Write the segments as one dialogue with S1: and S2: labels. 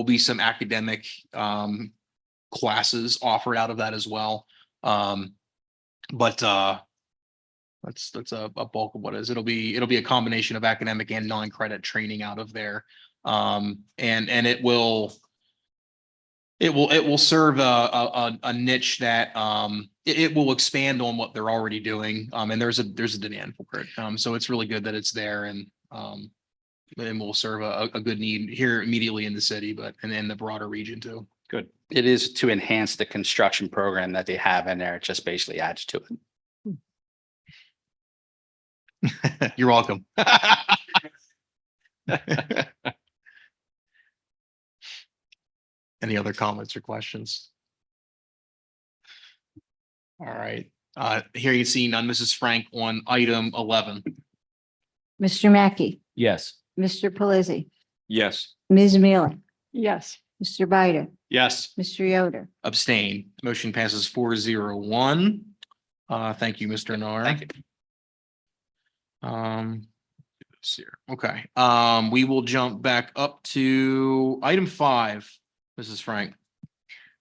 S1: will be some academic um classes offered out of that as well. Um, but uh that's that's a a bulk of what it is. It'll be it'll be a combination of academic and non-credit training out of there. Um, and and it will it will it will serve a a a- a niche that um it it will expand on what they're already doing. Um, and there's a there's a demand for it. Um, so it's really good that it's there and um and will serve a a good need here immediately in the city, but and in the broader region too.
S2: It is to enhance the construction program that they have in there. It just basically adds to it.
S1: You're welcome. Any other comments or questions? All right, uh, here you see none, Mrs. Frank on item eleven.
S3: Mr. Mackey,
S4: Yes.
S3: Mr. Pelisi,
S4: Yes.
S3: Ms. Mealy,
S5: yes,
S3: Mr. Bider,
S4: Yes.
S3: Mr. Yoder.
S1: Abstain. Motion passes four zero one. Uh, thank you, Mr. Nar. Thank you. Um, let's see here. okay, um, we will jump back up to item five, Mrs. Frank.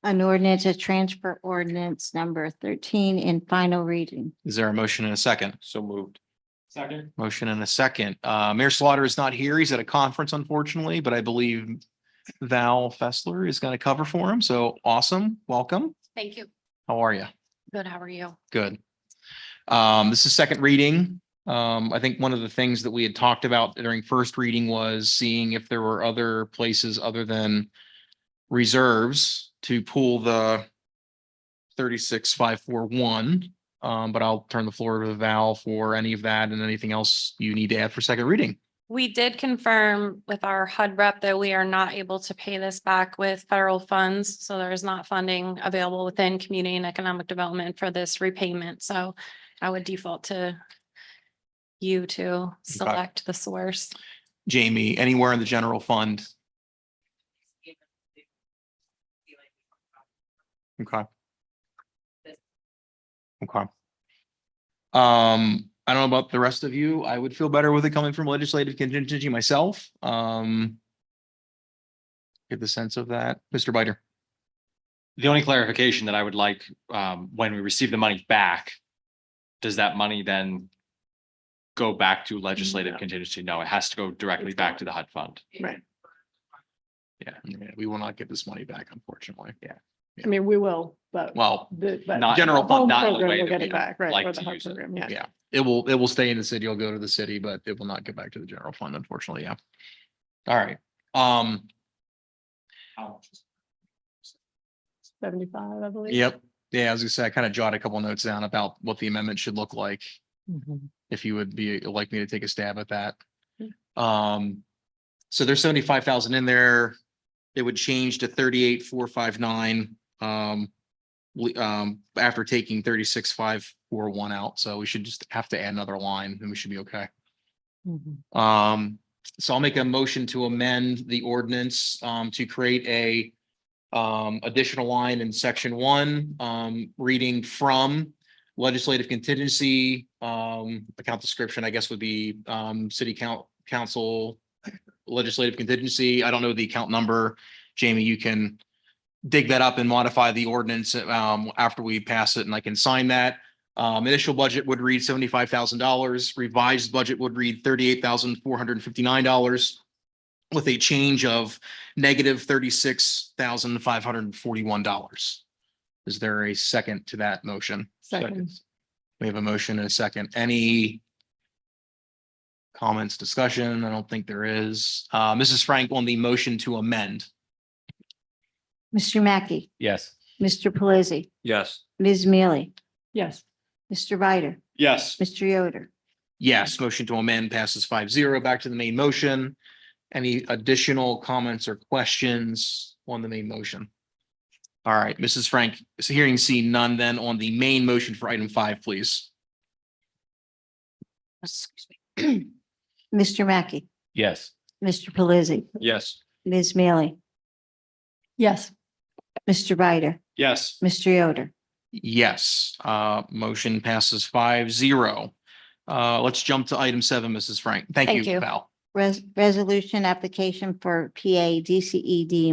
S3: An ordinance, a transfer ordinance number thirteen in final reading.
S1: Is there a motion and a second?
S4: So moved. Second.
S1: Motion and a second. Uh, Mayor Slaughter is not here. He's at a conference unfortunately, but I believe Val Fessler is going to cover for him. So awesome. Welcome.
S6: Thank you.
S1: How are you?
S6: Good, how are you?
S1: Good. Um, this is second reading. Um, I think one of the things that we had talked about during first reading was seeing if there were other places other than reserves to pull the thirty-six, five, four, one. Um, but I'll turn the floor over to Val for any of that and anything else you need to add for second reading.
S6: We did confirm with our HUD rep that we are not able to pay this back with federal funds. So there is not funding available within community and economic development for this repayment. So I would default to you to select the source.
S1: Jamie, anywhere in the general fund? Okay. Okay. Um, I don't know about the rest of you. I would feel better with it coming from legislative contingency myself. Um. Get the sense of that. Mr. Bider,
S4: The only clarification that I would like, um, when we receive the money back, does that money then go back to legislative contingency? No, it has to go directly back to the HUD fund.
S1: Yeah, we will not get this money back, unfortunately. Yeah.
S5: I mean, we will, but.
S1: Well,
S5: the- but
S4: Not-
S1: General
S5: the
S4: fund,
S5: home
S4: not in the
S5: program
S4: way that
S5: will get
S4: we
S5: it back, right,
S4: like
S5: for
S4: to
S5: the home
S4: use it.
S5: program, yeah.
S1: yeah, it will, it will stay in the city. It'll go to the city, but it will not get back to the general fund, unfortunately. Yeah. All right. Um,
S5: Seventy-five, I believe.
S1: Yep. Yeah, I was gonna say, I kind of jotted a couple notes down about what the amendment should look like,
S5: Mhm.
S1: if you would be like me to take a stab at that.
S5: Yeah.
S1: Um, so there's seventy-five thousand in there. It would change to thirty-eight, four, five, nine. Um, we- um, after taking thirty-six, five, four, one out, so we should just have to add another line and we should be okay.
S5: Mhm.
S1: Um, so I'll make a motion to amend the ordinance um to create a. Um, additional line in section one, um, reading from legislative contingency. Um, account description, I guess, would be um city count council legislative contingency. I don't know the account number. Jamie, you can. Dig that up and modify the ordinance um after we pass it and I can sign that. Um, initial budget would read seventy-five thousand dollars, revised budget would read thirty-eight thousand four hundred and fifty-nine dollars with a change of negative thirty-six thousand five hundred and forty-one dollars. Is there a second to that motion?
S5: Second,
S1: We have a motion and a second. Any comments, discussion? I don't think there is. Uh, Mrs. Frank on the motion to amend.
S3: Mr. Mackey,
S4: Yes.
S3: Mr. Pelisi,
S4: Yes.
S3: Ms. Mealy,
S5: yes,
S3: Mr. Bider,
S4: Yes.
S3: Mr. Yoder.
S1: Yes, motion to amend passes five zero. Back to the main motion. Any additional comments or questions on the main motion? All right, Mrs. Frank, so hearing seen none then on the main motion for item five, please.
S3: Excuse me. Mr. Mackey,
S4: Yes.
S3: Mr. Pelisi,
S4: Yes.
S3: Ms. Mealy,
S5: yes,
S3: Mr. Bider,
S4: Yes.
S3: Mr. Yoder.
S1: Yes, uh, motion passes five zero. Uh, let's jump to item seven, Mrs. Frank. Thank
S6: Thank
S1: you,
S6: you.
S1: Val.
S3: Res- resolution application for PA DCED